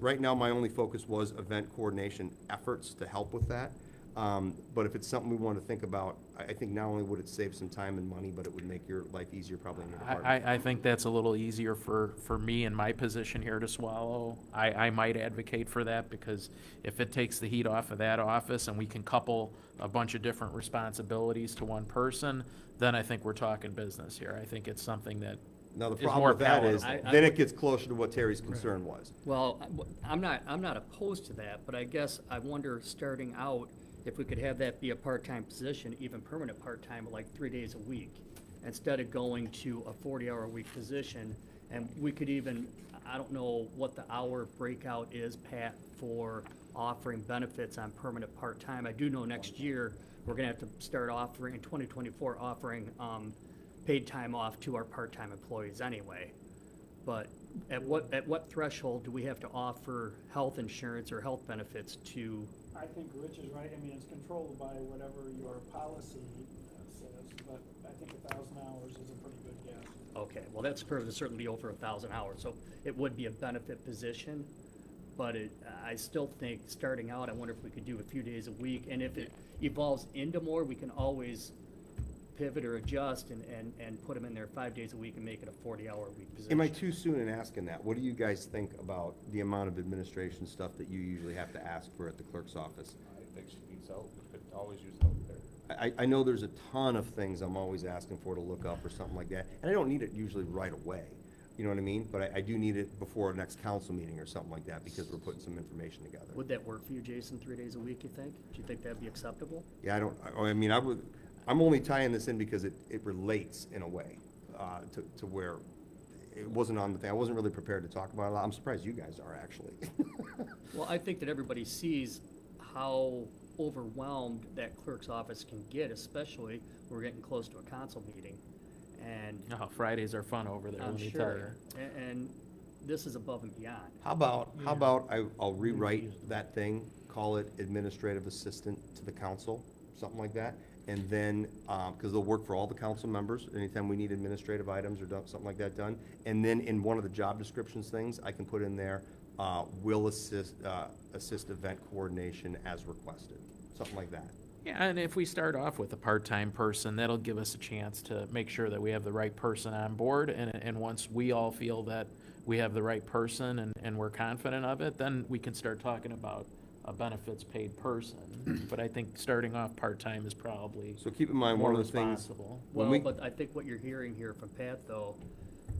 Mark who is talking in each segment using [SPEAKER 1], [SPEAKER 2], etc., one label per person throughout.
[SPEAKER 1] Right now, my only focus was event coordination efforts to help with that. Um, But if it's something we want to think about, I, I think not only would it save some time and money, but it would make your life easier probably in your
[SPEAKER 2] I,
[SPEAKER 1] department.
[SPEAKER 2] I, I think that's a little easier for, for me in my position here to swallow. I, I might advocate for that because if it takes the heat off of that office and we can couple a bunch of different responsibilities to one person, then I think we're talking business here. I think it's something that,
[SPEAKER 1] Now, the
[SPEAKER 2] It's
[SPEAKER 1] problem
[SPEAKER 2] more
[SPEAKER 1] with that is,
[SPEAKER 2] palatable.
[SPEAKER 3] I- I
[SPEAKER 1] then it
[SPEAKER 3] would-
[SPEAKER 1] gets closer to what Terry's concern was.
[SPEAKER 3] Well, I- w- I'm not, I'm not opposed to that, but I guess I wonder, starting out, if we could have that be a part-time position, even permanent part-time, like three days a week, instead of going to a forty-hour-a-week position. And we could even, I don't know what the hour breakout is, Pat, for offering benefits on permanent part-time. I do know next year, we're gonna have to start offering, in twenty twenty-four, offering, um, paid time off to our part-time employees anyway. But at what, at what threshold do we have to offer health insurance or health benefits to,
[SPEAKER 4] I think Rich is right, I mean, it's controlled by whatever your policy uh, says, but I think a thousand hours is a pretty good guess.
[SPEAKER 3] okay, well, that's per- certainly over a thousand hours, so it would be a benefit position. But it, I still think, starting out, I wonder if we could do a few days a week, and if it evolves into more, we can always pivot or adjust and, and, and put them in there five days a week and make it a forty-hour week position.
[SPEAKER 1] Am I too soon in asking that? What do you guys think about the amount of administration stuff that you usually have to ask for at the clerk's office?
[SPEAKER 5] I think she needs help, we could always use help there.
[SPEAKER 1] I, I know there's a ton of things I'm always asking for to look up or something like that, and I don't need it usually right away. You know what I mean? But I, I do need it before our next council meeting or something like that, because we're putting some information together.
[SPEAKER 3] Would that work for you, Jason, three days a week, you think? Do you think that'd be acceptable?
[SPEAKER 1] Yeah, I don't, I, I mean, I would, I'm only tying this in because it, it relates in a way, uh, to, to where it wasn't on the thing. I wasn't really prepared to talk about it. a lot. I'm surprised you guys are actually.
[SPEAKER 3] Well, I think that everybody sees how overwhelmed that clerk's office can get, especially when we're getting close to a council meeting. And
[SPEAKER 2] oh, Fridays are fun over there, let
[SPEAKER 3] I'm
[SPEAKER 2] me tell you.
[SPEAKER 3] sure, a- and this is above and beyond.
[SPEAKER 1] How about, how about I, I'll rewrite that thing, call it administrative assistant to the council, something like that? And then, um, because they'll work for all the council members, anytime we need administrative items or done- something like that done. And then in one of the job descriptions things, I can put in there, uh, will assist, uh, assist event coordination as requested, something like that.
[SPEAKER 2] Yeah, and if we start off with a part-time person, that'll give us a chance to make sure that we have the right person on board, and, and once we all feel that we have the right person and, and we're confident of it, then we can start talking about a benefits paid person. But I think starting off part-time is probably
[SPEAKER 1] So keep in mind,
[SPEAKER 2] more
[SPEAKER 1] one of the things,
[SPEAKER 2] responsible.
[SPEAKER 1] When we-
[SPEAKER 3] Well, but I think what you're hearing here from Pat, though,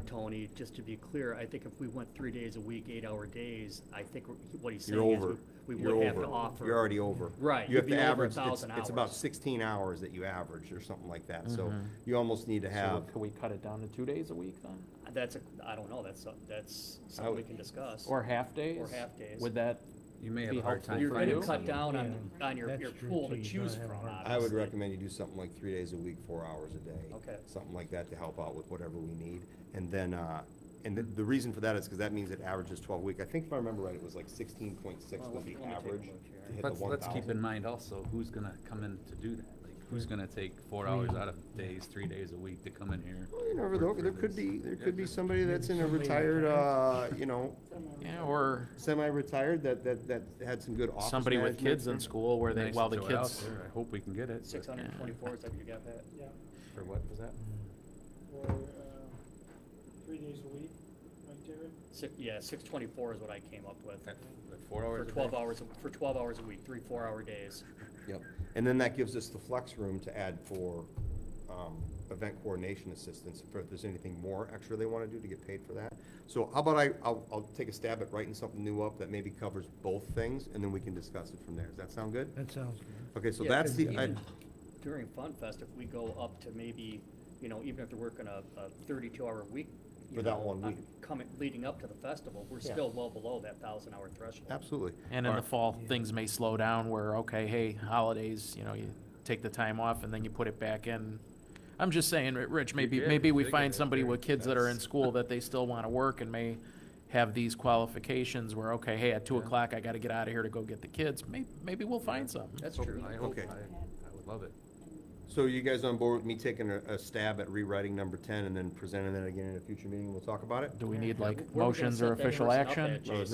[SPEAKER 3] Tony, just to be clear, I think if we went three days a week, eight-hour days, I think what he's
[SPEAKER 1] you're
[SPEAKER 3] saying is
[SPEAKER 1] over.
[SPEAKER 3] we we
[SPEAKER 1] You're
[SPEAKER 3] would have to
[SPEAKER 1] over.
[SPEAKER 3] offer.
[SPEAKER 1] You're already over.
[SPEAKER 3] Right,
[SPEAKER 1] You have
[SPEAKER 3] you'd be
[SPEAKER 1] to
[SPEAKER 3] over a
[SPEAKER 1] average, it's,
[SPEAKER 3] 1,000
[SPEAKER 1] it's about
[SPEAKER 3] hours.
[SPEAKER 1] sixteen hours that you average or something like that. So you almost need to have.
[SPEAKER 2] So can we cut it down to two days a week then?
[SPEAKER 3] That's, a I don't know, that's, some- that's something we can discuss.
[SPEAKER 2] Or half days?
[SPEAKER 3] half days.
[SPEAKER 2] Would that,
[SPEAKER 6] You may
[SPEAKER 2] Be
[SPEAKER 6] have a hard
[SPEAKER 2] helpful
[SPEAKER 6] time.
[SPEAKER 3] You're
[SPEAKER 2] for
[SPEAKER 6] finding
[SPEAKER 2] you?
[SPEAKER 3] gonna cut down
[SPEAKER 6] someone.
[SPEAKER 7] Yeah,
[SPEAKER 3] on, on your,
[SPEAKER 7] that's
[SPEAKER 3] your
[SPEAKER 7] true,
[SPEAKER 3] pool to
[SPEAKER 7] too. You
[SPEAKER 3] choose
[SPEAKER 7] gotta
[SPEAKER 3] from,
[SPEAKER 7] have a lot
[SPEAKER 1] I would
[SPEAKER 3] obviously.
[SPEAKER 1] recommend you do something like three days a week, four hours a day.
[SPEAKER 3] Okay.
[SPEAKER 1] Something like that to help out with whatever we need. And then, uh, and the, the reason for that is because that means it averages twelve a week. I think if I remember right, it was like sixteen point six
[SPEAKER 3] Well,
[SPEAKER 1] was
[SPEAKER 3] let me-
[SPEAKER 1] the
[SPEAKER 3] let me take a
[SPEAKER 1] average
[SPEAKER 3] look here.
[SPEAKER 1] to hit the
[SPEAKER 6] Let's,
[SPEAKER 1] one
[SPEAKER 6] let's keep
[SPEAKER 1] thousand.
[SPEAKER 6] in mind also, who's gonna come in to do that? Like, who's gonna take four hours
[SPEAKER 1] Mm.
[SPEAKER 6] out of days, three days a week to come in here?
[SPEAKER 1] You never
[SPEAKER 6] work
[SPEAKER 1] know,
[SPEAKER 6] for
[SPEAKER 1] there could
[SPEAKER 6] this?
[SPEAKER 1] be, there could be
[SPEAKER 6] Yeah.
[SPEAKER 1] somebody that's in a
[SPEAKER 7] Somebody that-
[SPEAKER 1] retired, uh, you know,
[SPEAKER 2] yeah, or
[SPEAKER 1] semi-retired that, that, that had some good office
[SPEAKER 2] somebody with
[SPEAKER 1] management
[SPEAKER 2] kids in
[SPEAKER 1] experience.
[SPEAKER 2] school where they,
[SPEAKER 6] Nice to
[SPEAKER 2] while the
[SPEAKER 6] throw it out
[SPEAKER 2] kids,
[SPEAKER 6] there. I hope we can get it.
[SPEAKER 3] Six
[SPEAKER 6] but-
[SPEAKER 3] hundred and twenty-four, is that what you got that?
[SPEAKER 4] Yeah,
[SPEAKER 6] For what was that?
[SPEAKER 4] or, uh, three days a week, right, Terry?
[SPEAKER 3] Six, yeah, six twenty-four is what I came up with,
[SPEAKER 6] That- Like four hours?
[SPEAKER 3] for
[SPEAKER 6] a day?
[SPEAKER 3] twelve hours, a- for twelve hours a week, three, four-hour days.
[SPEAKER 1] Yep, and then that gives us the flex room to add for, um, event coordination assistance, if there's anything more extra they wanna do to get paid for that. So how about I, I'll, I'll take a stab at writing something new up that maybe covers both things, and then we can discuss it from there, does that sound good?
[SPEAKER 7] That sounds good.
[SPEAKER 1] Okay, so
[SPEAKER 3] Yeah,
[SPEAKER 1] that's the,
[SPEAKER 7] because
[SPEAKER 1] I,
[SPEAKER 7] even-
[SPEAKER 3] During Fun Fest, if we go up to maybe, you know, even if they're working a, a thirty-two hour week. you
[SPEAKER 1] For that
[SPEAKER 3] know,
[SPEAKER 1] one
[SPEAKER 3] uh,
[SPEAKER 1] week.
[SPEAKER 3] Coming, leading up to the festival, we're
[SPEAKER 1] Yeah.
[SPEAKER 3] still well below that thousand-hour threshold.
[SPEAKER 1] absolutely.
[SPEAKER 2] And in
[SPEAKER 1] All
[SPEAKER 2] the
[SPEAKER 1] right.
[SPEAKER 2] fall, things may slow down where, okay, hey, holidays, you know, you take the time off and then you put it back in. I'm just saying, Ri- Rich, maybe,
[SPEAKER 6] did,
[SPEAKER 2] maybe
[SPEAKER 6] you
[SPEAKER 2] we
[SPEAKER 6] did get
[SPEAKER 2] find
[SPEAKER 6] that
[SPEAKER 2] somebody
[SPEAKER 6] there.
[SPEAKER 2] with kids that are in
[SPEAKER 6] That's-
[SPEAKER 2] school that they still want to work and may have these qualifications where, okay, hey, at two
[SPEAKER 6] Yeah.
[SPEAKER 2] o'clock, I got to get out of here to go get the kids. May, maybe we'll find some.
[SPEAKER 3] That's
[SPEAKER 6] Hope-
[SPEAKER 3] true.
[SPEAKER 6] I hope, I,
[SPEAKER 1] Okay.
[SPEAKER 6] I would love it.
[SPEAKER 1] So you guys on board with me taking a, a stab at rewriting number ten and then presenting that again in a future meeting, we'll talk about it?
[SPEAKER 2] Do we need
[SPEAKER 3] Yeah,
[SPEAKER 2] like
[SPEAKER 3] where are we gonna
[SPEAKER 2] motions or
[SPEAKER 3] set that
[SPEAKER 2] official
[SPEAKER 3] person up
[SPEAKER 2] action?
[SPEAKER 3] at, Jason?